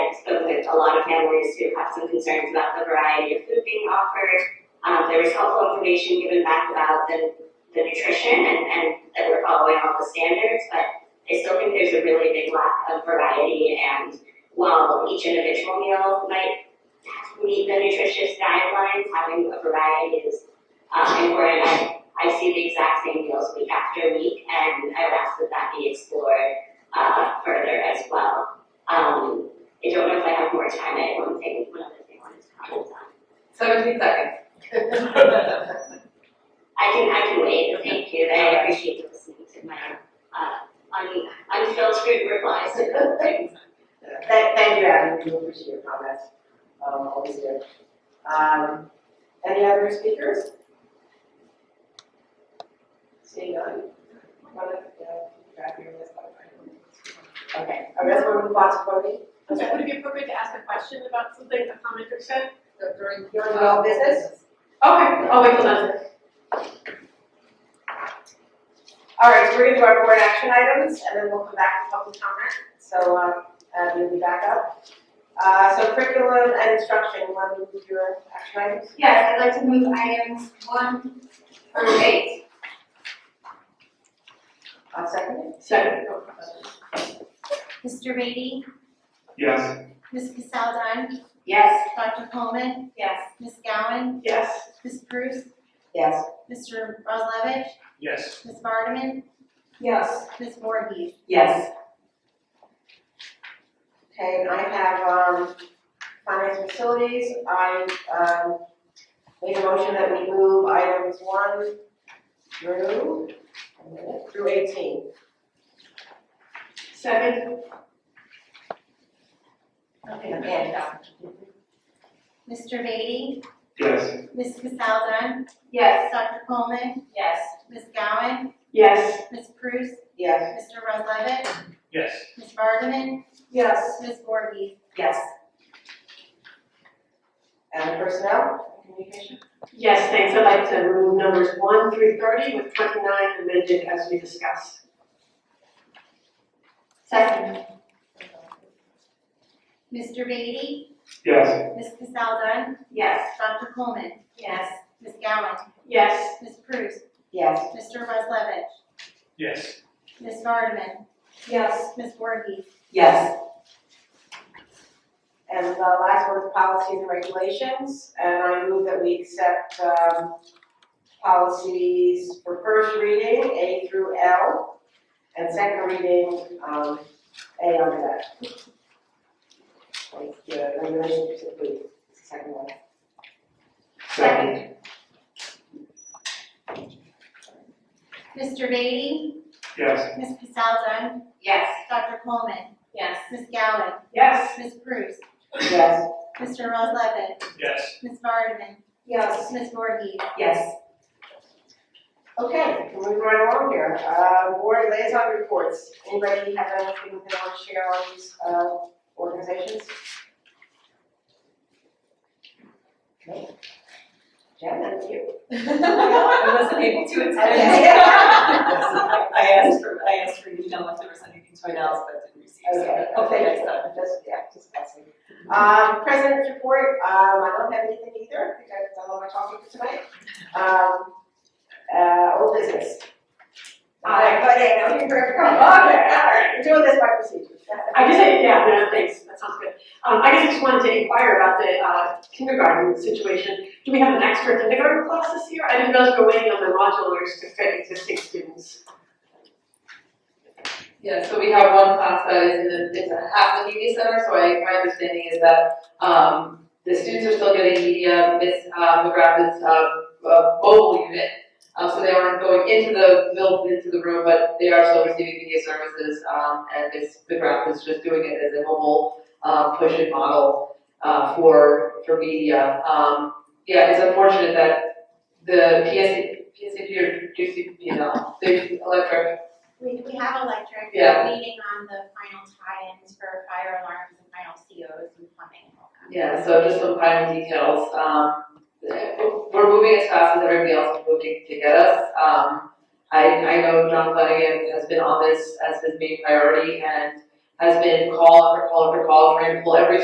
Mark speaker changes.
Speaker 1: a lot of families who have some concerns about the variety of food being offered. Um, there was helpful information given back about the, the nutrition and, and that we're following all the standards, but I still think there's a really big lack of variety and while each individual meal might meet the nutritious guidelines, having a variety is um, important. I, I see the exact same meals week after week and I would ask that that be explored uh, further as well. Um, I don't know if I have more time, I have one thing, one other thing I wanted to comment on.
Speaker 2: Seventeen seconds.
Speaker 1: I can, I can wait, thank you, I appreciate you listening to my, uh, un- unfiltered replies to things.
Speaker 3: Thank, thank you, Adam, we appreciate your comments, um, always do. Um, any other speakers? Seeing none? Wanna, uh, grab your list, I'll find one. Okay, I guess we'll move on to voting.
Speaker 4: Would it be appropriate to ask a question about something a commenter said?
Speaker 2: During.
Speaker 3: During the old business?
Speaker 4: Okay, I'll wait till then.
Speaker 3: All right, so we're gonna do our board action items, and then we'll come back to public comment, so, um, uh, you'll be back up. Uh, so curriculum and instruction, you wanna move your action items?
Speaker 5: Yes, I'd like to move items one through eight.
Speaker 3: I'll second
Speaker 4: Second.
Speaker 6: Mr. Beatty?
Speaker 7: Yes.
Speaker 6: Ms. Cassel Dunn?
Speaker 2: Yes.
Speaker 6: Dr. Coleman?
Speaker 5: Yes.
Speaker 6: Ms. Gowan?
Speaker 2: Yes.
Speaker 6: Ms. Bruce?
Speaker 3: Yes.
Speaker 6: Mr. Roslevich?
Speaker 7: Yes.
Speaker 6: Ms. Vardaman?
Speaker 2: Yes.
Speaker 6: Ms. Voorhees?
Speaker 3: Yes. Okay, and I have, um, finance and facilities, I, um, make a motion that we move items one through, through eighteen.
Speaker 2: Second.
Speaker 3: Okay. And, uh,
Speaker 6: Mr. Beatty?
Speaker 7: Yes.
Speaker 6: Ms. Cassel Dunn?
Speaker 5: Yes.
Speaker 6: Dr. Coleman?
Speaker 5: Yes.
Speaker 6: Ms. Gowan?
Speaker 2: Yes.
Speaker 6: Ms. Bruce?
Speaker 3: yes,
Speaker 6: Mr. Roslevich?
Speaker 7: Yes.
Speaker 6: Ms. Vardaman?
Speaker 2: Yes.
Speaker 6: Ms. Voorhees?
Speaker 5: Yes.
Speaker 3: and personnel, communication?
Speaker 2: Yes, thanks. I'd like to remove numbers one through thirty with twenty-nine amended as we discussed.
Speaker 5: Second.
Speaker 6: Mr. Beatty?
Speaker 7: Yes.
Speaker 6: Ms. Cassel Dunn?
Speaker 2: Yes.
Speaker 6: Dr. Coleman?
Speaker 5: Yes.
Speaker 6: Ms. Gowan?
Speaker 2: Yes.
Speaker 6: Ms. Bruce?
Speaker 3: Yes.
Speaker 6: Mr. Roslevich?
Speaker 7: Yes.
Speaker 6: Ms. Vardaman?
Speaker 2: Yes.
Speaker 6: Ms. Voorhees?
Speaker 3: Yes. And the last one is policies and regulations, and I move that we accept, um, policies for first reading, A through L, and second reading, um, A under that. Like, the regulations, please, second one.
Speaker 7: Second.
Speaker 6: Mr. Beatty?
Speaker 7: Yes.
Speaker 6: Ms. Cassel Dunn?
Speaker 5: Yes.
Speaker 6: Dr. Coleman?
Speaker 5: Yes.
Speaker 6: Ms. Gowan?
Speaker 2: Yes.
Speaker 6: Ms. Bruce?
Speaker 3: Yes.
Speaker 6: Mr. Roslevin?
Speaker 7: Yes.
Speaker 6: Ms. Vardaman?
Speaker 2: Yes.
Speaker 6: Ms. Voorhees?
Speaker 5: Yes.
Speaker 3: Okay, moving right along here, uh, board liaison reports, anybody have anything they want to share on these, uh, organizations? Okay. Jen, that's you.
Speaker 4: I wasn't able to I asked for, I asked for an email if there was anything to announce, but didn't receive,
Speaker 3: Okay,
Speaker 4: so hopefully
Speaker 3: okay,
Speaker 4: next time.
Speaker 3: just, yeah, just passing. Um, president's report, um, I don't have anything either, I think I've done all my talking for tonight. Um, uh, old business.
Speaker 2: I-
Speaker 3: But, yeah, no, you're perfect, come on, all right, we're doing this by procedure.
Speaker 2: I just, yeah, no, thanks, that sounds good. Um, I guess I just wanted to inquire about the, uh, kindergarten situation. Do we have an extra kindergarten class this year? I didn't realize we're waiting on the modulars to fit existing students.
Speaker 8: Yeah, so we have one class that is in the, it's a half the media center, so I, my understanding is that, um, the students are still getting media, Miss uh, McGrath is, uh, uh, mobile unit. Uh, so they aren't going into the, built into the room, but they are still receiving media services, um, and Miss McGrath is just doing it as a mobile, um, push and model, uh, for, for media. Um, yeah, it's unfortunate that the PS, PSAP or GCPL, the electric
Speaker 6: We, we have electric,
Speaker 8: Yeah.
Speaker 6: we're waiting on the final tie-ins for fire alarms and final COs and plumbing and all that.
Speaker 8: Yeah, so just some final details, um, we're moving as fast as everybody else is moving to get us, um, I, I know John Flanagan has been on this as his main priority and has been call after call after call, trying to pull every